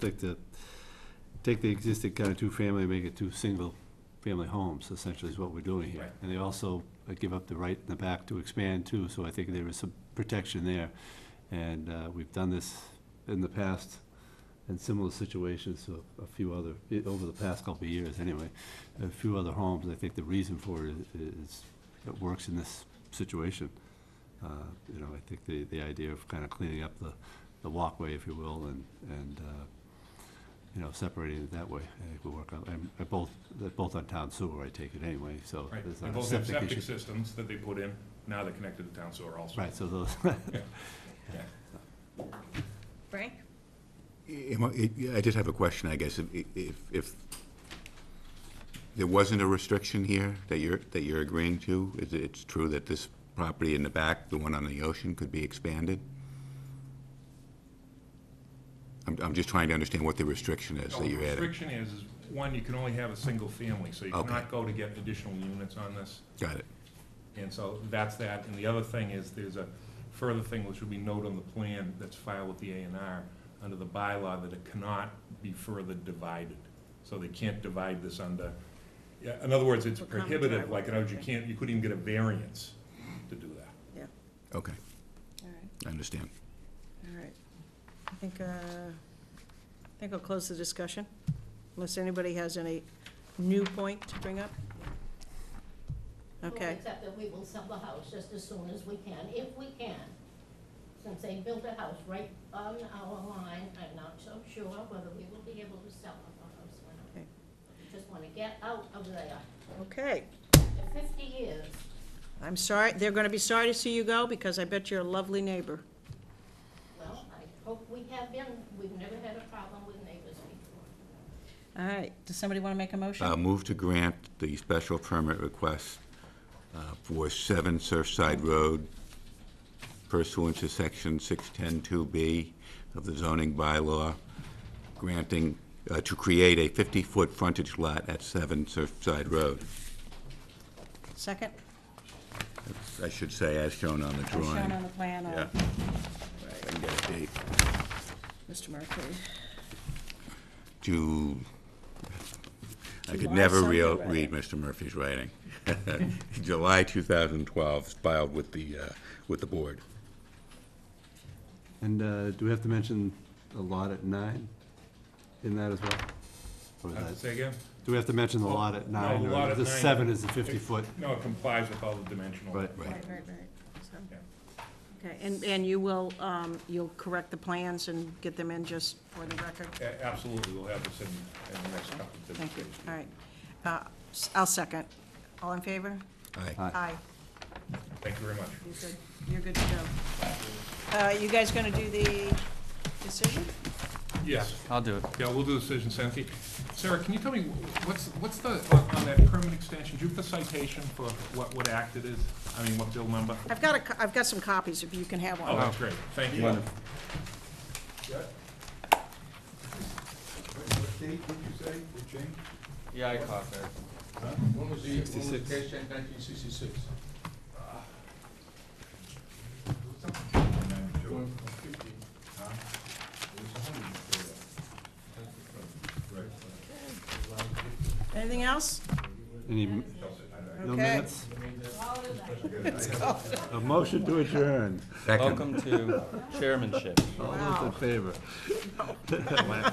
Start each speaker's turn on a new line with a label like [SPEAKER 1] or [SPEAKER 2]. [SPEAKER 1] take the, take the existing kind of two-family, make it two single-family homes, essentially is what we're doing here.
[SPEAKER 2] Right.
[SPEAKER 1] And they also uh, give up the right in the back to expand too, so I think there is some protection there. And uh, we've done this in the past in similar situations, so a few other, i- over the past couple of years anyway, a few other homes, I think the reason for it i- is, it works in this situation. Uh, You know, I think the, the idea of kind of cleaning up the, the walkway, if you will, and, and, uh, you know, separating it that way, I think will work out. And they're both, they're both on town sewer, I take it anyway, so
[SPEAKER 2] Right,
[SPEAKER 1] there's
[SPEAKER 2] they
[SPEAKER 1] not a
[SPEAKER 2] both have
[SPEAKER 1] septic
[SPEAKER 2] septic
[SPEAKER 1] issue.
[SPEAKER 2] systems that they put in, now they're connected to town sewer also.
[SPEAKER 1] Right, so those,
[SPEAKER 3] Frank?
[SPEAKER 4] Am I I did have a question, I guess. If- If, if there wasn't a restriction here that you're, that you're agreeing to, is it- it's true that this property in the back, the one on the ocean, could be expanded? I'm, I'm just trying to understand what the restriction is
[SPEAKER 2] So
[SPEAKER 4] that
[SPEAKER 2] the
[SPEAKER 4] you're adding.
[SPEAKER 2] restriction is, is one, you can only have a single family, so you
[SPEAKER 4] Okay.
[SPEAKER 2] cannot go to get additional units on this.
[SPEAKER 4] Got it.
[SPEAKER 2] And so that's that, and the other thing is, there's a further thing which will be noted on the plan that's filed with the A and R, under the bylaw, that it cannot be further divided. So they can't divide this under, yeah, in other words, it's
[SPEAKER 3] Or common
[SPEAKER 2] prohibitive,
[SPEAKER 3] driveway.
[SPEAKER 2] like, in other words, you can't, you couldn't even get a variance to do that.
[SPEAKER 4] Okay,
[SPEAKER 3] All right,
[SPEAKER 4] I understand.
[SPEAKER 3] all right. I think, uh, I think I'll close the discussion, unless anybody has any new point to bring up?
[SPEAKER 5] Well,
[SPEAKER 3] Okay,
[SPEAKER 5] Except that we will sell the house just as soon as we can, if we can. Since they built a house right on our line, I'm not so sure whether we will be able to sell the house or not.
[SPEAKER 3] Okay.
[SPEAKER 5] We Just wanna get out of there.
[SPEAKER 3] okay.
[SPEAKER 5] After fifty years,
[SPEAKER 3] I'm sorry, they're gonna be sorry to see you go, because I bet you're a lovely neighbor.
[SPEAKER 5] well, I hope we have been, we've never had a problem with neighbors before.
[SPEAKER 3] All right, does somebody wanna make a
[SPEAKER 4] Uh,
[SPEAKER 3] motion?
[SPEAKER 4] Move to grant the special permit request uh, for 7 Surfside Road pursuant to Section 610-2B of the zoning bylaw, granting, uh, to create a 50-foot frontage lot at 7 Surfside Road.
[SPEAKER 3] Second?
[SPEAKER 4] I should say, as shown on the
[SPEAKER 3] As
[SPEAKER 4] drawing.
[SPEAKER 3] shown on the plan,
[SPEAKER 4] Yeah.
[SPEAKER 3] uh,
[SPEAKER 4] I can get a date.
[SPEAKER 3] Mr. Murphy.
[SPEAKER 4] To, I could
[SPEAKER 3] July
[SPEAKER 4] never
[SPEAKER 3] something,
[SPEAKER 4] real-
[SPEAKER 3] right?
[SPEAKER 4] read Mr. Murphy's writing. July 2012, filed with the, uh, with the board.
[SPEAKER 1] and uh, do we have to mention the lot at nine in that as well? Or is
[SPEAKER 2] Uh,
[SPEAKER 1] that-
[SPEAKER 2] Say again?
[SPEAKER 1] Do we have to mention the
[SPEAKER 2] Well,
[SPEAKER 1] lot at
[SPEAKER 2] no,
[SPEAKER 1] nine,
[SPEAKER 2] the lot
[SPEAKER 1] or
[SPEAKER 2] at
[SPEAKER 1] the
[SPEAKER 2] nine-
[SPEAKER 1] seven is the fifty-foot?
[SPEAKER 2] No, it complies with all the dimensional.
[SPEAKER 1] Right.
[SPEAKER 3] Right, right, right. So-
[SPEAKER 2] Yeah.
[SPEAKER 3] Okay, and, and you will, um, you'll correct the plans and get them in just for the record?
[SPEAKER 2] A- Absolutely, we'll have this in, in the next couple of days.
[SPEAKER 3] Thank you, all right. Uh, s- I'll second. All in favor?
[SPEAKER 4] Aye.
[SPEAKER 1] Aye.
[SPEAKER 2] Thank you very much.
[SPEAKER 3] You're good, you're good to go. Uh, You guys gonna do the decision?
[SPEAKER 2] Yes,
[SPEAKER 6] I'll do it.
[SPEAKER 2] yeah, we'll do the decision, Sam. Sarah, can you tell me, wh- what's, what's the, on on that permit extension, do you have the citation for what, what act it is? I mean, what bill number?
[SPEAKER 3] I've got a, co- I've got some copies if you can have
[SPEAKER 2] Oh,
[SPEAKER 3] one.
[SPEAKER 2] that's great, thank you. Wonderful.
[SPEAKER 7] What date did you say, the change?
[SPEAKER 6] Yeah, I caught that.
[SPEAKER 7] When was the, when was the case changed, nineteen sixty-six?
[SPEAKER 3] Anything else?
[SPEAKER 1] Any, m- no
[SPEAKER 3] Okay.
[SPEAKER 1] minutes? A motion to adjourn.
[SPEAKER 4] Second.
[SPEAKER 6] Welcome to chairmanship.
[SPEAKER 1] All those in favor?